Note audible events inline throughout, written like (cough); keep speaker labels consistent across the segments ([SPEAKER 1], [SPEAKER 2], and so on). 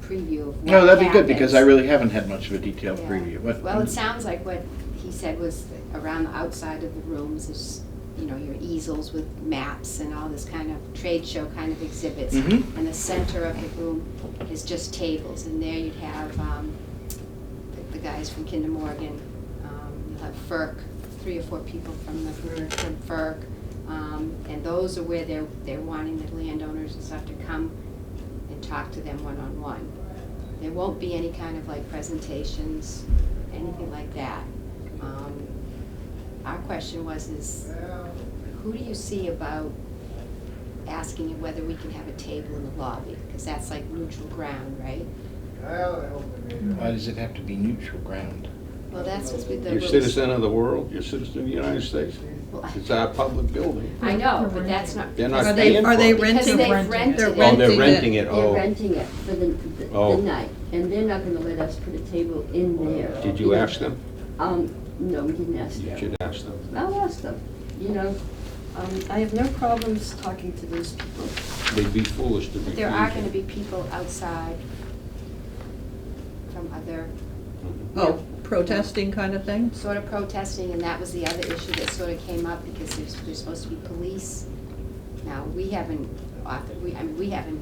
[SPEAKER 1] preview of what
[SPEAKER 2] No, that'd be good, because I
[SPEAKER 1] happens.
[SPEAKER 2] really haven't had much of a detailed
[SPEAKER 1] Yeah.
[SPEAKER 2] preview. What-
[SPEAKER 1] Well, it sounds like what he said was around the outside of the rooms is, you know, your easels with maps and all this kind of trade show kind of exhibits.
[SPEAKER 2] Mhm.
[SPEAKER 1] And the center of the room is just tables, and there you'd have um, the- the guys from Kinder Morgan. um, You'll have FERC, three or four people from the, from FERC. um, And those are where they're, they're wanting the landowners and stuff to come and talk to them one-on-one. There won't be any kind of like presentations, anything like that. Um, Our question was is, who do you see about asking you whether we can have a table in the lobby? Because that's like neutral ground, right?
[SPEAKER 2] Why does it have to be neutral ground?
[SPEAKER 1] Well, that's what's with the.
[SPEAKER 3] You're a citizen of the world, you're a citizen of the United States.
[SPEAKER 1] Well,
[SPEAKER 3] It's our public building.
[SPEAKER 1] I know, but that's not.
[SPEAKER 3] They're not
[SPEAKER 4] Are they,
[SPEAKER 3] paying for
[SPEAKER 4] are they
[SPEAKER 3] it.
[SPEAKER 1] Because
[SPEAKER 4] renting?
[SPEAKER 1] they've rented it.
[SPEAKER 3] Oh, they're renting it,
[SPEAKER 5] They're
[SPEAKER 3] oh.
[SPEAKER 5] renting it for the, the-
[SPEAKER 3] Oh.
[SPEAKER 5] the night, and they're not gonna let us put a table in there.
[SPEAKER 3] Did you ask them?
[SPEAKER 5] Um, no, we didn't ask
[SPEAKER 3] You
[SPEAKER 5] them.
[SPEAKER 3] should ask them.
[SPEAKER 5] I'll ask them, you know, um, I have no problems talking to those people.
[SPEAKER 3] They'd be foolish to refuse.
[SPEAKER 1] But there are gonna
[SPEAKER 3] it.
[SPEAKER 1] be people outside from other
[SPEAKER 3] Mhm.
[SPEAKER 4] Oh, protesting kind of thing?
[SPEAKER 1] sort of protesting, and that was the other issue that sort of came up, because there's, there's supposed to be police. Now, we haven't, author- we, I mean, we haven't,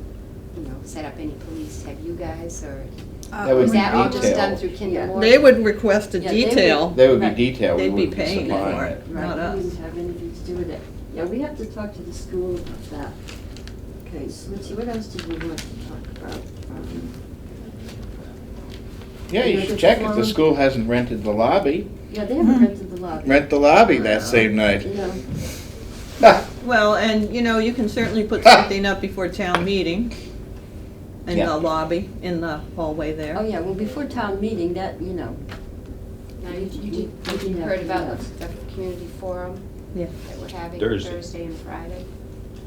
[SPEAKER 1] you know, set up any police, have you guys, or
[SPEAKER 2] That would
[SPEAKER 1] Uh, was
[SPEAKER 2] be
[SPEAKER 1] that all just done
[SPEAKER 2] detailed.
[SPEAKER 1] through Kinder
[SPEAKER 5] Yeah.
[SPEAKER 1] Morgan?
[SPEAKER 4] They would request a
[SPEAKER 5] Yeah, they would-
[SPEAKER 4] detail.
[SPEAKER 2] That would
[SPEAKER 5] Right.
[SPEAKER 2] be detailed. we
[SPEAKER 4] They'd be
[SPEAKER 2] wouldn't
[SPEAKER 4] paying
[SPEAKER 2] supply
[SPEAKER 4] for it,
[SPEAKER 5] Right,
[SPEAKER 4] not
[SPEAKER 5] we
[SPEAKER 4] us.
[SPEAKER 5] didn't have anything to do with it. Yeah, we have to talk to the school about that. Okay, so let's see, what else did we want to talk about? Um,
[SPEAKER 2] Yeah, you should check if the school hasn't rented the lobby.
[SPEAKER 5] Yeah, they haven't rented the lobby.
[SPEAKER 2] Rent the lobby that same night.
[SPEAKER 5] You
[SPEAKER 2] (laughs)
[SPEAKER 5] know,
[SPEAKER 4] Well, and, you know, you can certainly put something up before town meeting in
[SPEAKER 2] Yeah.
[SPEAKER 4] the lobby, in the hallway
[SPEAKER 5] oh
[SPEAKER 4] there.
[SPEAKER 5] yeah, well, before town meeting, that, you know,
[SPEAKER 1] Now, you, you did, you
[SPEAKER 5] Yeah.
[SPEAKER 1] heard about the the community forum
[SPEAKER 4] Yeah.
[SPEAKER 1] that we're having
[SPEAKER 3] Thursday.
[SPEAKER 1] Thursday and Friday?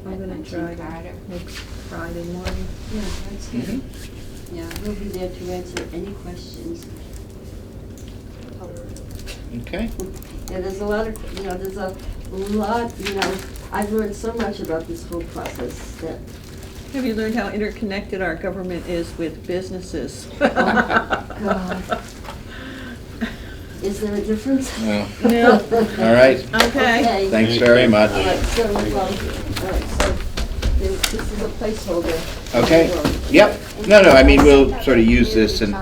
[SPEAKER 4] I'm gonna
[SPEAKER 1] at
[SPEAKER 4] try
[SPEAKER 1] 19 Carter.
[SPEAKER 4] to next Friday morning.
[SPEAKER 5] yeah, that's
[SPEAKER 2] Mm-hmm,
[SPEAKER 5] good.
[SPEAKER 3] Mm-hmm.
[SPEAKER 5] Yeah, we'll be there to answer any questions.
[SPEAKER 2] Okay,
[SPEAKER 5] Yeah, there's a lot of, you know, there's a lot, you know, I've learned so much about this whole process that,
[SPEAKER 4] Have you learned how interconnected our government is with businesses? (laughs)
[SPEAKER 5] Oh, God. is there a difference?
[SPEAKER 2] No.
[SPEAKER 5] (laughs)
[SPEAKER 4] No.
[SPEAKER 2] all right.
[SPEAKER 4] Okay.
[SPEAKER 2] Thanks very much.
[SPEAKER 5] All right, so, um, all right, so there- this is a placeholder. Oh,
[SPEAKER 2] Okay, yep. No, no, I mean, we'll sort of use this and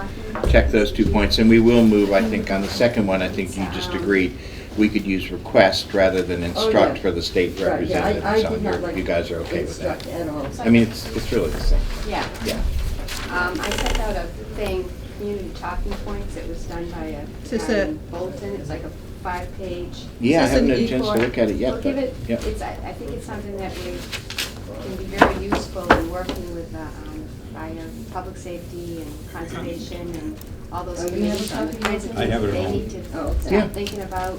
[SPEAKER 2] check those two points, and we will move, I think, on the second one, I think you just agreed, we could use request rather than instruct
[SPEAKER 5] Oh, yeah.
[SPEAKER 2] for the state
[SPEAKER 5] Right, yeah,
[SPEAKER 2] representative.
[SPEAKER 5] I, I
[SPEAKER 2] so
[SPEAKER 5] did
[SPEAKER 2] you're-
[SPEAKER 5] not like.
[SPEAKER 2] You guys are okay with that?
[SPEAKER 5] instruct At all.
[SPEAKER 2] I mean, it's, it's really the same,
[SPEAKER 1] Yeah.
[SPEAKER 2] yeah.
[SPEAKER 1] Um, I sent out a thing, community talking points, it was done by a
[SPEAKER 4] Is this
[SPEAKER 1] guy
[SPEAKER 4] a-
[SPEAKER 1] in Bolton, it was like a five-page.
[SPEAKER 2] Yeah, I
[SPEAKER 4] Is this
[SPEAKER 2] haven't
[SPEAKER 4] an
[SPEAKER 2] had a chance to
[SPEAKER 5] E
[SPEAKER 4] E4?
[SPEAKER 2] look at it yet,
[SPEAKER 1] We'll
[SPEAKER 2] but,
[SPEAKER 1] give it,
[SPEAKER 2] yeah.
[SPEAKER 1] it's, I, I think it's something that we, can be very useful in working with, the, um, fire, public safety and conservation and all those
[SPEAKER 5] Oh, you have a
[SPEAKER 1] committees on the
[SPEAKER 5] copy?
[SPEAKER 1] kinds of
[SPEAKER 3] I have
[SPEAKER 1] things
[SPEAKER 3] it at
[SPEAKER 1] they
[SPEAKER 3] home.
[SPEAKER 1] need to
[SPEAKER 5] Oh, okay.
[SPEAKER 2] Yeah.
[SPEAKER 1] start thinking about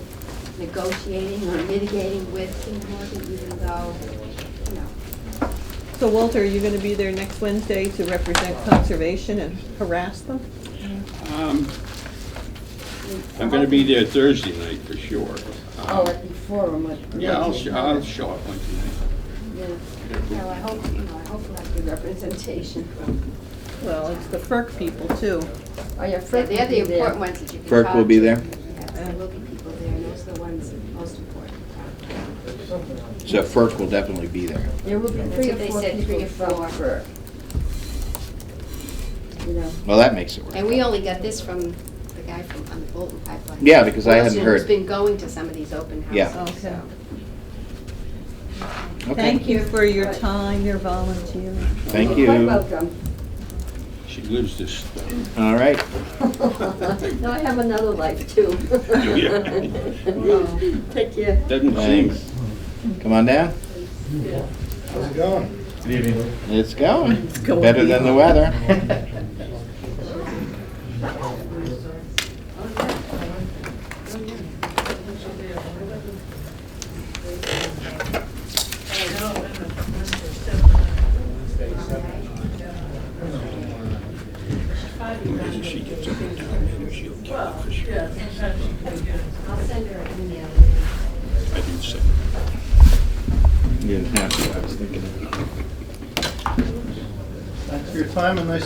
[SPEAKER 1] negotiating or mitigating with Kinder Morgan, even though, you know,
[SPEAKER 4] (laughs) So Walter, are you gonna be there next Wednesday to represent conservation and harass them?
[SPEAKER 3] Um, I'm gonna be there Thursday night for sure. Um,
[SPEAKER 5] Oh, at the forum, what?
[SPEAKER 3] Yeah, I'll, sh- I'll show up one night.
[SPEAKER 5] Yeah.
[SPEAKER 1] well, I hope, you know, I hope we'll have good representation from
[SPEAKER 4] Well, it's the FERC people too.
[SPEAKER 5] Oh, yeah,
[SPEAKER 1] Yeah,
[SPEAKER 5] Fred
[SPEAKER 1] they're
[SPEAKER 5] will
[SPEAKER 1] the
[SPEAKER 5] be there.
[SPEAKER 1] important ones that you can
[SPEAKER 2] Burke
[SPEAKER 1] talk
[SPEAKER 2] will be
[SPEAKER 1] to.
[SPEAKER 2] there?
[SPEAKER 1] Yes, there will be people there, and those are the ones most important.
[SPEAKER 2] So FERC will definitely be there.
[SPEAKER 5] There will be
[SPEAKER 1] That's
[SPEAKER 5] three or
[SPEAKER 1] what they
[SPEAKER 5] four
[SPEAKER 1] said, three
[SPEAKER 5] people
[SPEAKER 1] or four.
[SPEAKER 5] from Fred. You know,
[SPEAKER 2] Well, that makes it work.
[SPEAKER 1] And we only got this from the guy from, on the Bolton pipeline.
[SPEAKER 2] Yeah, because I hadn't
[SPEAKER 1] Who's
[SPEAKER 2] heard.
[SPEAKER 1] been going to some of these open
[SPEAKER 2] Yeah.
[SPEAKER 1] houses, so.
[SPEAKER 2] Okay.
[SPEAKER 4] Thank you for your
[SPEAKER 5] Right.
[SPEAKER 4] time, your volunteering.
[SPEAKER 2] Thank
[SPEAKER 5] you're
[SPEAKER 2] you.
[SPEAKER 5] Quite welcome. (laughs)
[SPEAKER 3] She lives this stuff.
[SPEAKER 2] All right,
[SPEAKER 5] No, I have another life
[SPEAKER 2] (laughs)
[SPEAKER 5] too. (laughs)
[SPEAKER 3] Yeah.
[SPEAKER 5] Take care.
[SPEAKER 3] Doesn't seem.
[SPEAKER 2] thanks. Come on down.
[SPEAKER 6] How's it going? Good evening.
[SPEAKER 2] It's going.
[SPEAKER 4] going.
[SPEAKER 2] Better than the weather.
[SPEAKER 3] As she gets up and down, maybe she'll kill it for sure.
[SPEAKER 1] I'll send her an email.
[SPEAKER 3] I didn't say.
[SPEAKER 2] You didn't have to, I was thinking.
[SPEAKER 6] Thanks for your time and nice